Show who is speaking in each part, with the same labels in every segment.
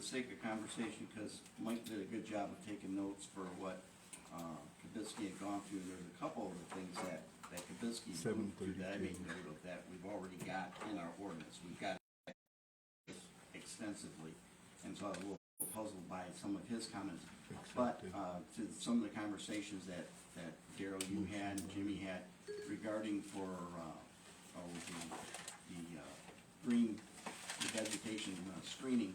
Speaker 1: sake of conversation, because Mike did a good job of taking notes for what uh, Kibitsky had gone through, there's a couple of the things that, that Kibitsky moved through that
Speaker 2: 7:32.
Speaker 1: I made note of, that we've already got in our ordinance, we've got it extensively, and so I was a little puzzled by some of his comments. But uh, to some of the conversations that, that Daryl, you had, and Jimmy had regarding for, uh, oh, the, the uh, green the vegetation uh, screening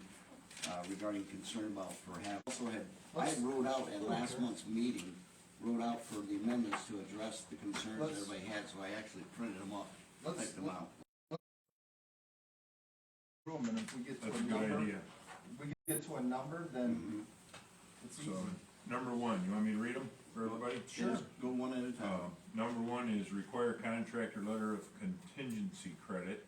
Speaker 1: uh, regarding concern about perhaps, also had, I had wrote out at last month's meeting, wrote out for the amendments to address the concerns
Speaker 3: Let's-
Speaker 1: everybody had, so I actually printed them up,
Speaker 3: Let's-
Speaker 1: typed them out.
Speaker 3: room, and if we get to
Speaker 4: That's
Speaker 3: a
Speaker 4: a good
Speaker 3: number,
Speaker 4: idea.
Speaker 3: if we get to a number, then
Speaker 1: Mm-hmm.
Speaker 3: it's easy.
Speaker 4: So, number one, you want me to read them for everybody?
Speaker 1: Just Go one at a
Speaker 4: Uh,
Speaker 1: time.
Speaker 4: number one is require contractor letter of contingency credit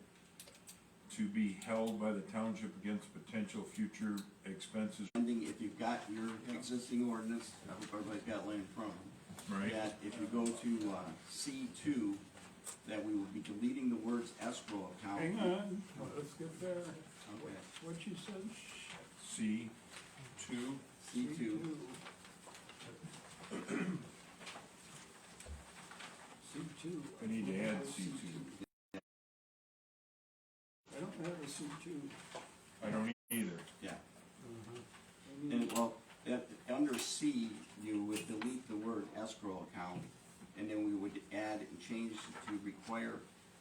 Speaker 4: to be held by the township against potential future expenses,
Speaker 1: Ending, if you've got your existing ordinance, I hope everybody's got land in front of them.
Speaker 4: right?
Speaker 1: that if you go to uh, C two, that we will be deleting the words escrow account.
Speaker 5: Hang on, let's get there.
Speaker 1: Okay,
Speaker 5: What you said?
Speaker 4: C two,
Speaker 1: C two,
Speaker 5: C two.
Speaker 4: I need to add C two.
Speaker 5: I don't have a C two.
Speaker 4: I don't either.
Speaker 1: yeah. And well, that, under C, you would delete the word escrow account, and then we would add and change to require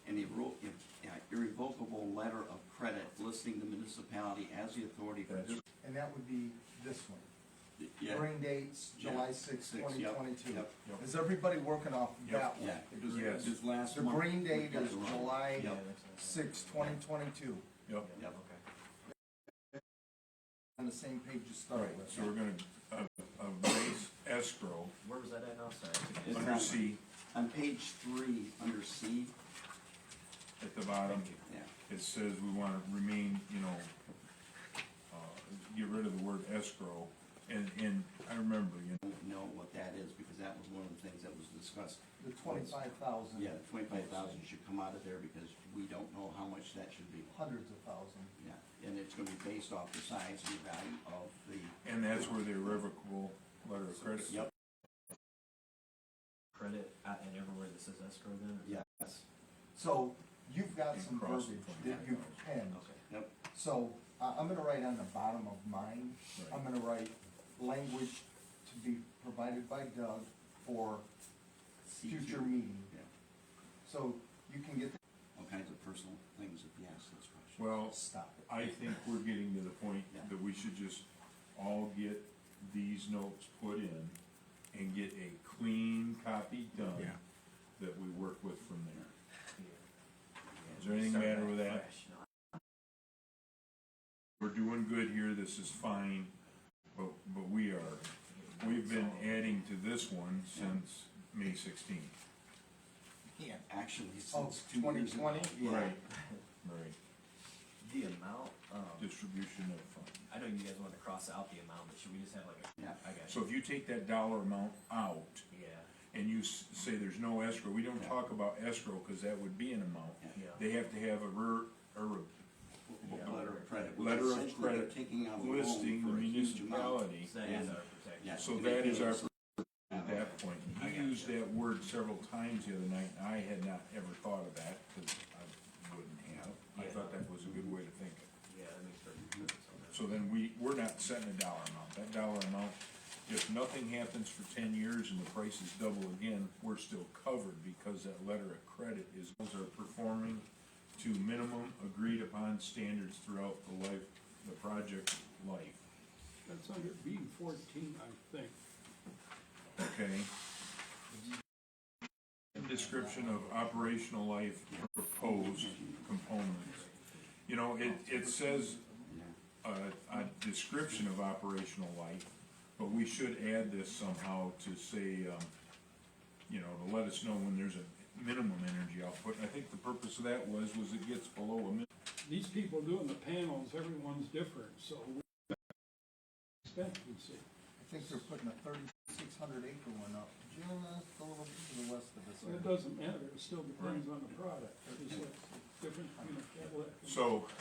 Speaker 1: an irre- uh, irrevocable letter of credit listing the municipality as the authority for
Speaker 4: That's-
Speaker 1: this.
Speaker 3: And that would be this one.
Speaker 1: Yeah,
Speaker 3: Hearing dates, July
Speaker 1: Yeah.
Speaker 3: sixth,
Speaker 1: Six,
Speaker 3: twenty
Speaker 1: yep,
Speaker 3: twenty-two.
Speaker 1: yep,
Speaker 4: yep.
Speaker 3: Is everybody working off
Speaker 4: Yep.
Speaker 3: that one?
Speaker 1: yeah. because
Speaker 4: Yes.
Speaker 1: This last
Speaker 3: The
Speaker 1: month.
Speaker 3: green
Speaker 1: we
Speaker 3: date
Speaker 1: did
Speaker 3: is
Speaker 1: it wrong.
Speaker 3: July
Speaker 1: Yep,
Speaker 3: sixth, twenty twenty-two,
Speaker 4: Yep.
Speaker 1: yep.
Speaker 3: on the same page you
Speaker 4: All
Speaker 3: started
Speaker 4: right,
Speaker 3: with.
Speaker 4: so we're gonna, uh, uh, raise escrow
Speaker 6: Where was that at now, sorry?
Speaker 1: It's
Speaker 4: under
Speaker 1: not-
Speaker 4: C
Speaker 1: On page three, under C,
Speaker 4: at the bottom.
Speaker 1: yeah,
Speaker 4: it says we wanna remain, you know, uh, get rid of the word escrow, and, and I remember, you
Speaker 1: I don't know what that is, because that was one of the things that was discussed.
Speaker 3: The twenty-five thousand,
Speaker 1: Yeah, the twenty-five thousand should come out of there, because we don't know how much that should be.
Speaker 3: hundreds of thousand.
Speaker 1: Yeah, and it's gonna be based off the size and value of the,
Speaker 4: know, and that's where the irrevocable letter of credit.
Speaker 1: yep,
Speaker 6: Credit, uh, and everywhere that says escrow then? or-
Speaker 1: yes,
Speaker 3: So you've got
Speaker 4: And
Speaker 3: some
Speaker 4: cross the
Speaker 3: verbiage that you've
Speaker 4: 25,000.
Speaker 3: penned.
Speaker 6: Okay.
Speaker 1: yep,
Speaker 3: So I I'm gonna write on the bottom of mine, I'm gonna write language to be provided by Doug for
Speaker 1: C two.
Speaker 3: future meeting.
Speaker 1: Yeah,
Speaker 3: So you can get,
Speaker 1: all kinds of personal things if you ask those questions.
Speaker 4: Well,
Speaker 3: stop it.
Speaker 4: I think we're getting to the point that we should just all get these notes put in and get a clean copy done
Speaker 2: Yeah.
Speaker 4: that we work with from there. Is
Speaker 6: Yeah.
Speaker 4: there anything
Speaker 6: Start
Speaker 4: matter
Speaker 6: back
Speaker 4: with that?
Speaker 6: fresh. No,
Speaker 4: We're doing good here, this is fine, but, but we are, we've been adding to this one since May sixteenth.
Speaker 3: Yeah.
Speaker 1: Actually,
Speaker 3: Oh,
Speaker 1: since two years ago.
Speaker 3: 2020?
Speaker 1: Yeah.
Speaker 4: Right, right,
Speaker 6: The amount, um,
Speaker 4: distribution of funds.
Speaker 6: I know you guys wanted to cross out the amount, but should we just have like a?
Speaker 1: Yeah.
Speaker 6: I got
Speaker 4: So
Speaker 6: you.
Speaker 4: if you take that dollar amount out
Speaker 6: Yeah,
Speaker 4: and you s- say there's no escrow, we don't talk about escrow, cause that would be an amount.
Speaker 6: yeah.
Speaker 4: They have to have a ver, a re-
Speaker 1: Yeah, Letter of credit. which
Speaker 4: letter of
Speaker 1: essentially they're
Speaker 4: credit
Speaker 1: Taking out a loan
Speaker 4: listing the
Speaker 1: for a huge amount.
Speaker 4: municipality.
Speaker 6: So that is
Speaker 1: Yeah.
Speaker 6: our protection.
Speaker 1: Yeah.
Speaker 4: So that is our,
Speaker 1: Yeah.
Speaker 4: at that point,
Speaker 6: I
Speaker 4: he
Speaker 6: got
Speaker 4: used
Speaker 6: you.
Speaker 4: that word several times the other night, and I had not ever thought of that, cause I wouldn't have. I
Speaker 6: Yeah.
Speaker 4: thought that was a good way to think of it.
Speaker 6: Yeah, that makes perfect sense.
Speaker 4: So then we, we're not setting a dollar amount, that dollar amount, if nothing happens for ten years and the price is double again, we're still covered because that letter of credit is, those are performing to minimum agreed upon standards throughout the life, the project life,
Speaker 5: That's under B fourteen, I think.
Speaker 4: okay? Description of operational life proposed components. You know, it, it says
Speaker 1: Yeah.
Speaker 4: a, a description of operational life, but we should add this somehow to say, um, you know, to let us know when there's a minimum energy output. I think the purpose of that was, was it gets below a min-
Speaker 5: These people doing the panels, everyone's different, so we expectancy.
Speaker 3: I think they're putting a thirty-six hundred acre one up, just a little bit to the west of
Speaker 5: Well,
Speaker 3: us.
Speaker 5: it doesn't matter, it still depends on the product. It's a different, you know, Cadillac.
Speaker 4: So,